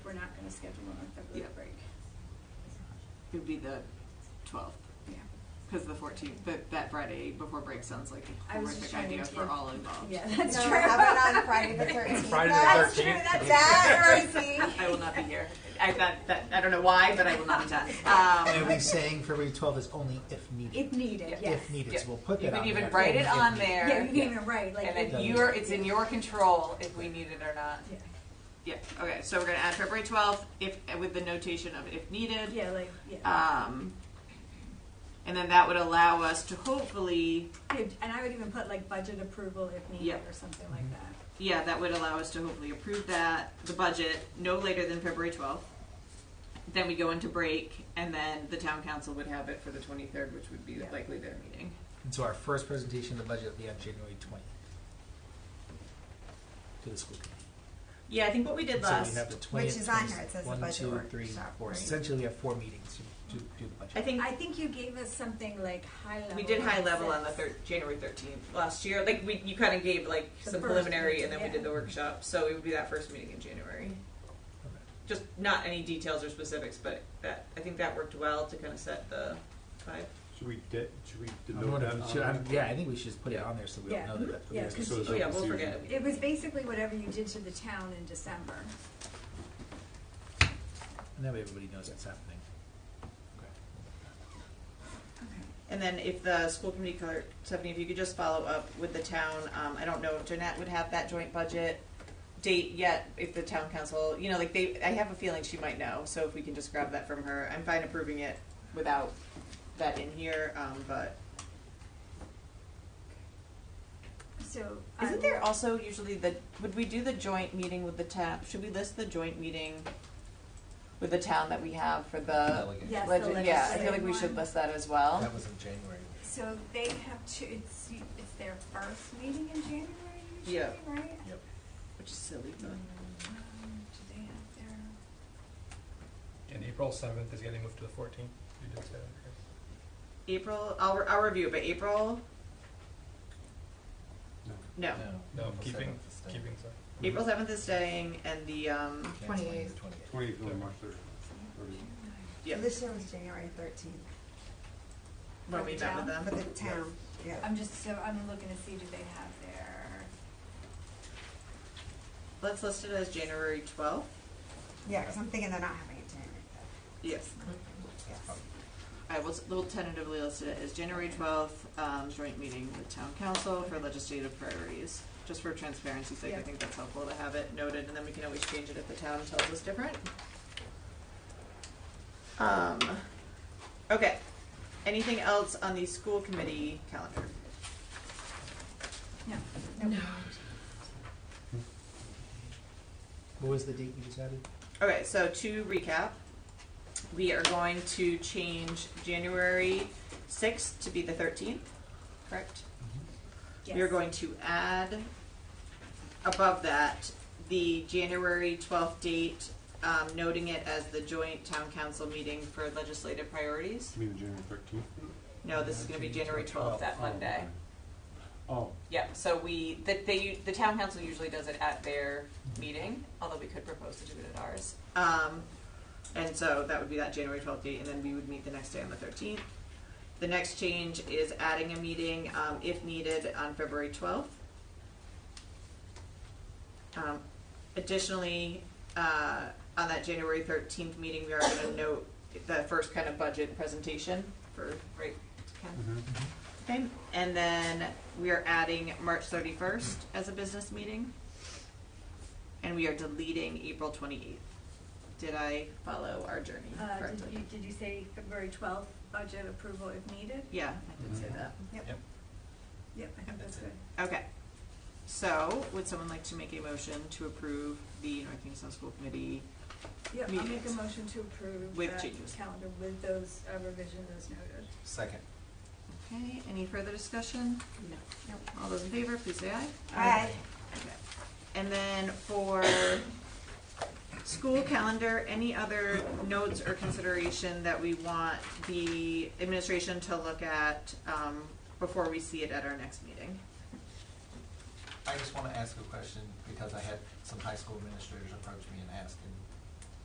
was scheduled on our February Yeah. break. It'd be the twelfth, Yeah. because the fourteenth, but that Friday before break sounds like a I was just horrific trying idea to- for all involved. Yeah, that's no, true. how about on Friday the 13th? Friday the That's 13th. true. That's that earthy. I will not be here. I that, that I don't know why, but I will not be done. And Um, are we saying February twelfth is only if needed? If needed, yes. If needed, Yes. so we'll put you that on can there. even write it Only if on needed. there, Yeah, you Yeah. can even write, like. and if- then you're it's in your control if we need it or not. Yeah. Yeah. Okay. So we're gonna add February twelfth, if with the notation of if needed. Yeah, like, yeah. Um, and then that would allow us to hopefully, If- And I would even put like budget approval if needed Yep. Mm-hmm. or something like that. yeah, that would allow us to hopefully approve that, the budget, no later than February twelfth. Then we go into break, and then the town council would have it for the twenty-third, which would be Yeah. likely their meeting. And so our first presentation of the budget will be on January twentieth. To the school committee. Yeah, I think what we did And So last, we have the twentieth. is on here, it says the budget One, two, workshop, three, four, right? essentially we have four meetings to, to do the budget. I think I think you gave us something like high level. we did high that level on the says- thir- January thirteenth last year. Like we, you kind of gave like The some first preliminary, meeting, and then we yeah. did the workshop. So it would be that first meeting in January. Okay. Just not any details or specifics, but that I think that worked well to kind of set the vibe. Should we de- should we I'm denote wondering that? if we on should- I'm- there? yeah, I think we should just put it on there so we Yeah. don't know Mm-hmm. that that's what Yeah, it is. 'cause So it's Oh yeah, not we'll confusing. forget. It was basically whatever you did to the town in December. And that way everybody knows what's happening. And then if the school committee clerk, Stephanie, if you could just follow up with the town, um, I don't know if Jeanette would have that joint budget date yet, if the town council, you know, like they, I have a feeling she might know, so if we can just grab that from her, I'm fine approving it without that in here, um, but. So. I Isn't there will- also usually the, would we do the joint meeting with the town, should we list the joint meeting with the town that we have for the? Delegate. Yes, the Legend, yeah, I feel legislative like we should one. list that as well. That was in January. So they have two, it's, it's their first meeting in January usually, Yeah. right? Yep. Which is silly, but. Um, Do they have their? And April seventh is getting moved to the fourteenth. You did say that, right? April, I'll, re- I'll review, it, but April, No. no. No, keeping, keeping, sorry. April seventh is staying, and the um, 28th. Twenty from March third. yeah, This year was January 13th when we met with them. for the town. Yeah. I'm just, so I'm looking to see, do they have their, Let's list it as January twelfth. Yeah, because I'm thinking they're not having it January. Yes, Yes. I will. s- We'll tentatively list it as January twelfth um, joint meeting with town council for legislative priorities. Just for transparency's sake, I Yeah. think that's helpful to have it noted, and then we can always change it if the town tells us different. Um, okay. Anything else on the school committee calendar? no. What was the date you just added? Okay, so to recap, we are going to change January 6th to be the 13th, correct? We are Yes. going to add above that the January 12th date, um, noting it as the joint town council meeting for legislative priorities. You mean the January thirteenth? No, this is going to be January 12th, that Monday. Oh, Yeah, so we, the, they, the town council usually does it at their meeting, although we could propose to do it at ours. Um, and so that would be that January twelfth date, and then we would meet the next day on the thirteenth. The next change is adding a meeting, um, if needed, on February twelfth. Um, additionally, uh, on that January thirteenth meeting, we are gonna note the first kind of budget presentation for, right, Ken? mm-hmm. Okay, and then we are adding March thirty-first as a business meeting. And we are deleting April twenty-eighth. Did I follow our journey Uh, did you, correctly? did you say February twelfth, budget approval if needed? Yeah, I did say Mhm. that. Yep, I think that's good. Okay. So, would someone like to make a motion to approve the North Kingstown School Committee? Yep, I'll make a Meetings. motion to approve With that changes. calendar with those uh, revisions as noted. Second. Okay, any further discussion? No. All those in favor, please say aye. Aye. Okay. And then for school calendar, any other notes or consideration that we want the administration to look at um, before we see it at our next meeting? I just want to ask a question because I had some high school administrators approach me and ask, and